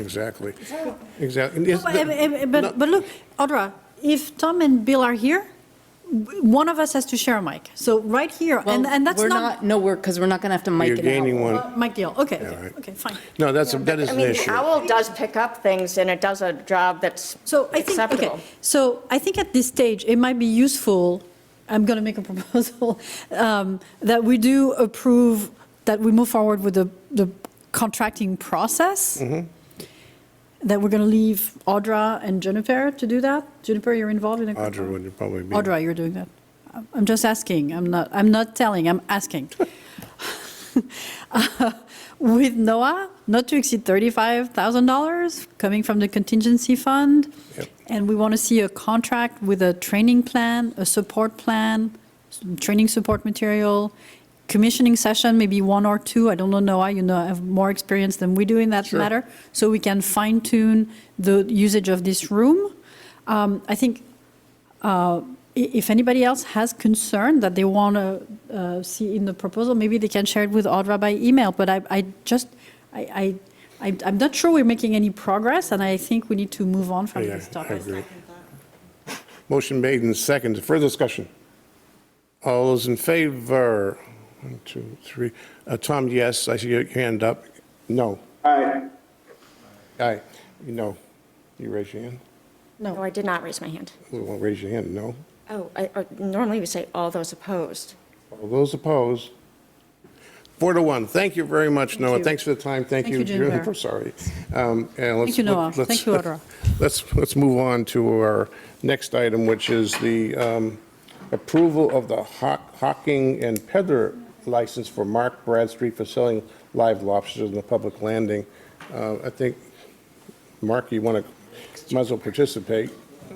Exactly. Exactly. But- eh, But, but- but look, Audra, if Tom and Bill are here, w- one of us has to share a mic. So right here, and, and that's We're not, No, we're, because we're not going to have to mic You're it out. gaining one. Mike Deal, okay, Yeah, okay, right. okay, fine. No, that's, a- that is I an mean, issue. the owl does pick up things, and it does a job that's So I think, okay, acceptable. so I think at this stage, it might be useful, I'm going to make a proposal, um, that we do approve, that we move forward with the, the contracting process. Mm-hmm. That we're going to leave Audra and Juniper to do that. Juniper, you're involved in a. Audra would probably be. Audra, you're doing that. I'm- I'm just asking, I'm not, I'm not telling, I'm asking. Uh, With NOAA, not to exceed $35,000 coming from the contingency fund. Yep. And we want to see a contract with a training plan, a support plan, some training support material, commissioning session, maybe one or two. I don't know, NOAA, you know, have more experience than we do in that Sure. matter. So we can fine tune the usage of this room. Um, I think i- if anybody else has concern that they want to see in the proposal, maybe they can share it with Audra by email, but I, I just, I, I, I'm- I'm not sure we're making any progress, and I think we need to move on from Yeah, this I topic. agree. Motion made and seconded. Further discussion? All those in favor? One, two, three. Uh, Tom, yes. I see your hand up. No. Aye. Aye. No. You raise your hand? No, I did not raise my hand. Who won't raise your hand? No. Oh, I- I- normally we say all those opposed. All those opposed? Four to one. Thank you very much, Noah. you. Thanks for the time. Thank Thank you, you, Juniper. Juniper. Sorry. Um, and let's- you, Noah. let's- Thank you, Audra. Let's, let's move on to our next item, which is the um, approval of the Hock- Hocking and Pedler license for Mark Bradstreet for selling live lobsters in the public landing. Uh, I think, Mark, you want to, might as well participate.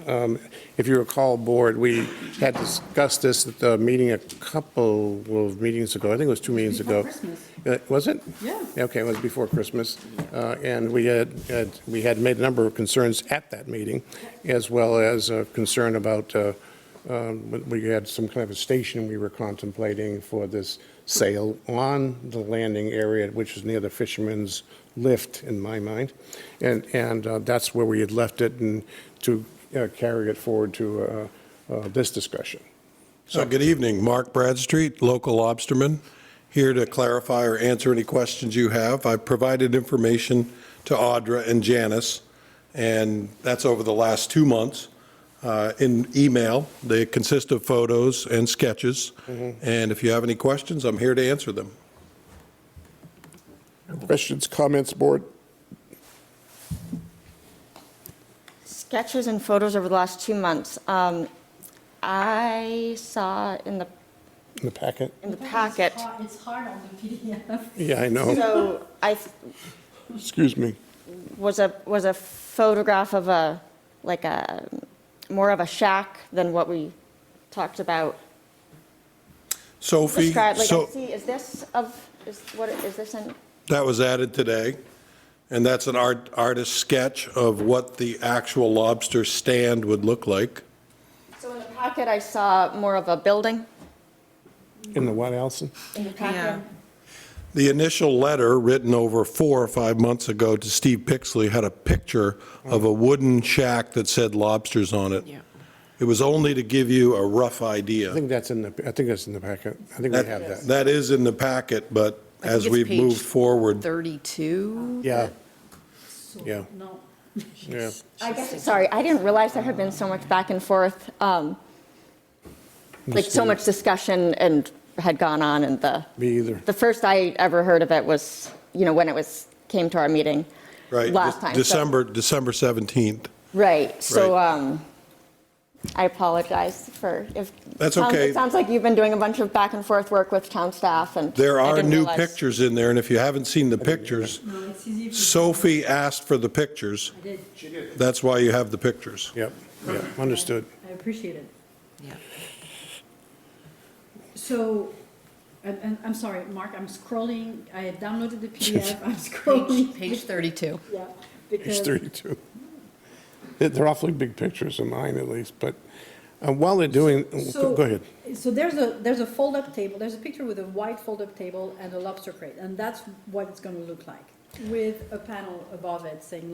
Um, If you recall, Board, we had discussed this at the meeting a couple of meetings ago. I think it was two meetings ago. Uh, Was it? Yeah. Okay, it was before Christmas. Uh, And we had, had- we had made a number of concerns at that meeting, as well as a concern about, uh, um, we- we had some kind of a station we were contemplating for this sale on the landing area, which is near the fisherman's lift, in my mind. And, and uh, that's where we had left it, and to uh, carry it forward to uh, uh, this discussion. Uh, Good evening, Mark Bradstreet, local lobsterman, here to clarify or answer any questions you have. I provided information to Audra and Janice, and that's over the last two months, uh, in email. They consist of photos and sketches, and if you have any questions, I'm here to answer them. Questions, comments, Board? Sketches and photos over the last two months. Um, I saw in the, In the packet? in the packet, It's hard on the PDF. Yeah, I know. so I, th- Excuse me. was a, was a photograph of a, like a, more of a shack than what we talked about. Sophie, Describe, like, I so, see, is this of, is, what, is this in? that was added today, and that's an art artist sketch of what the actual lobster stand would look like. So in the packet, I saw more of a building. In the what, Allison? In the packet. The initial letter, written over four or five months ago to Steve Pixley, had a picture of a wooden shack that said lobsters on it. It was only to give you a rough I idea. think that's in the, I think that's in the packet. I think we have that. That is in the packet, but I as think it's we've page moved forward, 32? Yeah. Yeah, No. yeah. I guess, sorry, I didn't realize there had been so much back and forth, um, like so much discussion and had gone on and the, Me either. the first I ever heard of it was, you know, when it was, came to our meeting. right? Last time. so- December, December 17th. Right, so, Right. um, I apologize for if. That's sounds- okay. It sounds like you've been doing a bunch of back and forth work with town staff and. There I are didn't new realize- pictures in there, and if you haven't seen the pictures, Sophie asked for the pictures. That's why you have the pictures. Yep, yep, understood. I appreciate it. So, and- and I'm sorry, Mark, I'm scrolling, I have downloaded the PDF, I'm Page scrolling. page 32. Yeah, Page because- 32. They're- They're awfully big pictures of mine, at least, but uh, while they're doing, So- go go ahead. So there's a, there's a fold-up table, there's a picture with a white fold-up table and a lobster crate, and that's what it's gonna look like, with a panel above it saying